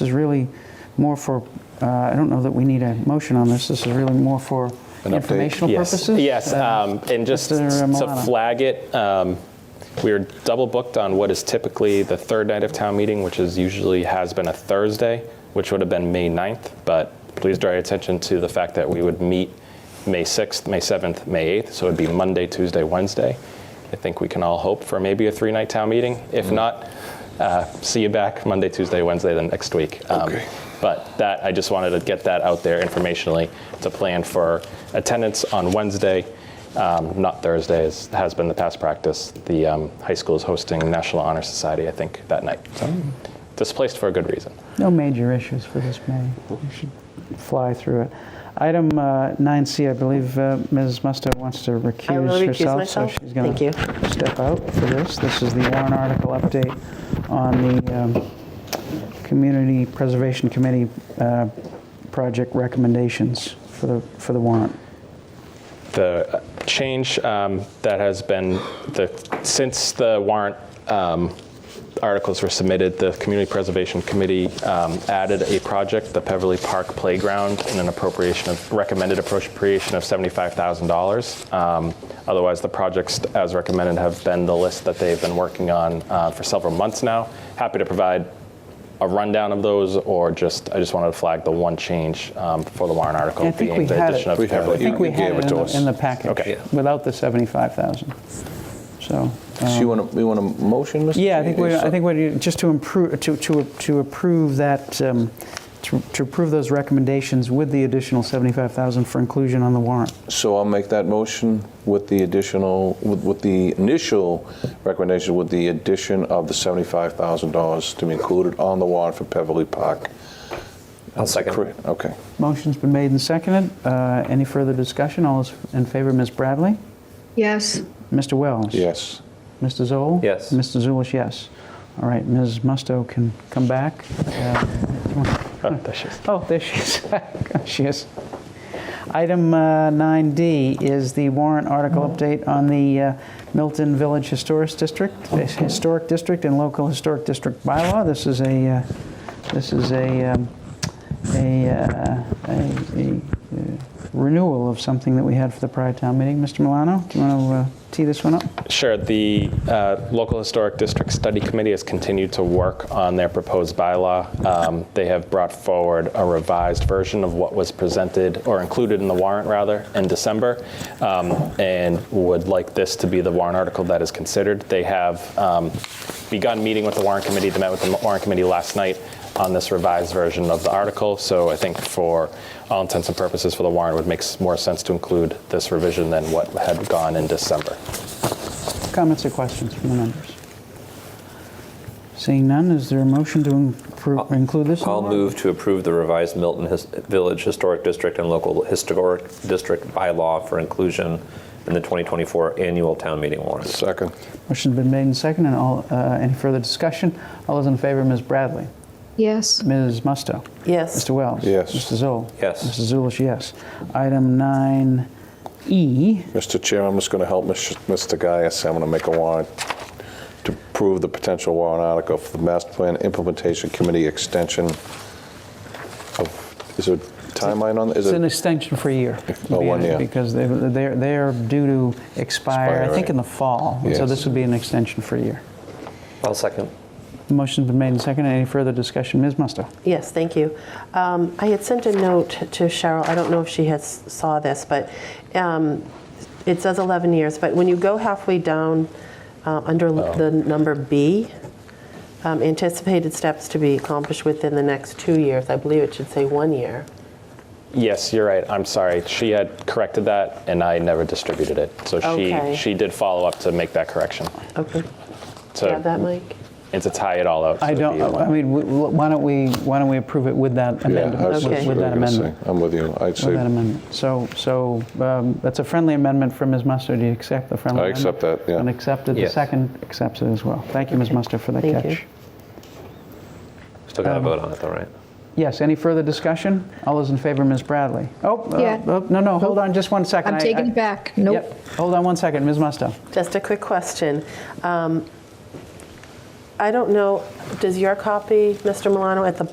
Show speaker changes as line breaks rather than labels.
This is really more for, uh, I don't know that we need a motion on this, this is really more for
An update?
informational
Yes,
purposes?
Yes,
Uh,
um, and just
Mr.
to
Milano.
flag it, um, we were double booked on what is typically the third night of town meeting, which is usually, has been a Thursday, which would have been May 9th, but please draw your attention to the fact that we would meet May 6th, May 7th, May 8th, so it'd be Monday, Tuesday, Wednesday. I think we can all hope for maybe a three-night town meeting. If not, uh, see you back Monday, Tuesday, Wednesday, then next week. Um,
Okay.
but that, I just wanted to get that out there informationally to plan for attendance on Wednesday, um, not Thursday, as has been the past practice. The um, high school is hosting National Honor Society, I think, that night. So displaced for a good reason.
No major issues for this meeting. We should fly through it. Item uh, 9C, I believe uh, Ms. Musto wants to
I will
recuse
recuse
herself.
myself.
So she's going
Thank you.
to step out for this. This is the Warren article update on the um, Community Preservation Committee uh, project recommendations for the for the warrant.
the uh, change um, that has been the since the warrant um, articles were submitted, the Community Preservation Committee um, added a project, the Beverly Park Playground, in an appropriation of recommended appropriation of seventy-five thousand dollars. Um, Otherwise, the projects as recommended have been the list that they've been working on uh, for several months now. Happy to provide a rundown of those, or just, I just wanted to flag the one change um, for the warrant article.
I think
being
we
the
had it.
addition of
We had it.
Beverly
I think
Park.
we had
gave it
it
to
in
us.
the- in the package.
Okay.
Without the 75,000. So,
So you want to, we want a motion, Mr.
Um, yeah, I think we,
Chair?
I think we, just to improve, to, to, to approve that, um, to to approve those recommendations with the additional 75,000 for inclusion on the warrant.
So I'll make that motion with the additional, with, with the initial recommendation, with the addition of the $75,000 to be included on the warrant for Beverly Park.
I'll second.
Correct, Okay.
Motion's been made and seconded. Uh, Any further discussion? All is in favor, Ms. Bradley?
Yes,
Mr. Wells?
Yes.
Mr. Zoll?
Yes.
Mr. Zulish, yes. All right, Ms. Musto can come back. Uh,
Oh, there she is.
Oh, there she is. She is. Item uh, 9D is the warrant article update on the uh, Milton Village Historic District, Historic District and Local Historic District bylaw. This is a, uh, this is a, um, a, uh, a a, uh, renewal of something that we had for the prior town meeting. Mr. Milano, do you want to tee this one up?
Sure, the uh, local historic district study committee has continued to work on their proposed bylaw. Um, They have brought forward a revised version of what was presented, or included in the warrant, rather, in December, um, and would like this to be the warrant article that is considered. They have um, begun meeting with the warrant committee, they met with the warrant committee last night on this revised version of the article, so I think for all intents and purposes for the warrant, it would make s- more sense to include this revision than what had gone in December.
Comments or questions from the members? Seeing none, is there a motion to impro- include this? in the
I'll
warrant?
move to approve the revised Milton His- Village Historic District and Local Historic District bylaw for inclusion in the 2024 annual town meeting warrant.
Second.
Motion's been made and seconded. All, uh, any further discussion? All those in favor, Ms. Bradley?
yes,
Ms. Musto?
Yes.
Mr. Wells?
Yes.
Mr. Zoll?
Yes.
Mr. Zulish, yes. Item E 9E,
Mr. Chair, I'm just going to help Mr. Mr. Gaius. I'm going to make a warrant to approve the potential warrant article for the Master Plan Implementation Committee extension of, is there a timeline on, is
it's an
it?
extension for a year.
Oh, one year.
Because they- they're, they're due to expire, I
Expire,
think, in the
right.
fall. So
Yes.
this would be an extension for a year.
I'll second.
Motion's been made and seconded. Any further discussion? Ms. Musto?
Yes, thank you. Um, I had sent a note to Cheryl, I don't know if she has, saw this, but um, it says 11 years, but when you go halfway down uh, under l- the number B, um, anticipated steps to be accomplished within the next two years, I believe it should say one year.
Yes, you're right. I'm sorry. She had corrected that, and I never distributed it. So
Okay.
she, she did follow up to make that correction,
Okay, have that,
to,
Mike?
and to tie it all out. so
I
it'd
don't,
be one-
I mean, we- why don't we, why don't we approve it with that
Yeah, I
amendment?
was
Okay.
just
With that
gonna say,
amendment.
I'm with you. I'd
With that
say,
amendment. So, so um, that's a friendly amendment from Ms. Musto. Do you accept the friendly
I
amendment?
accept that, yeah.
And accepted, the
Yes.
second accepts it as well. Thank you, Ms. Musto, for that
Thank you.
catch.
Still got to vote on it, though, right?
Yes, any further discussion? All those in favor, Ms. Bradley? Oh, uh,
Yeah.
oh, no, no, hold on just one second.
I'm
I-
taking
I-
it back. Nope.
Yep, hold on one second, Ms. Musto.
Just a quick question. Um, I don't know, does your copy, Mr. Milano, at the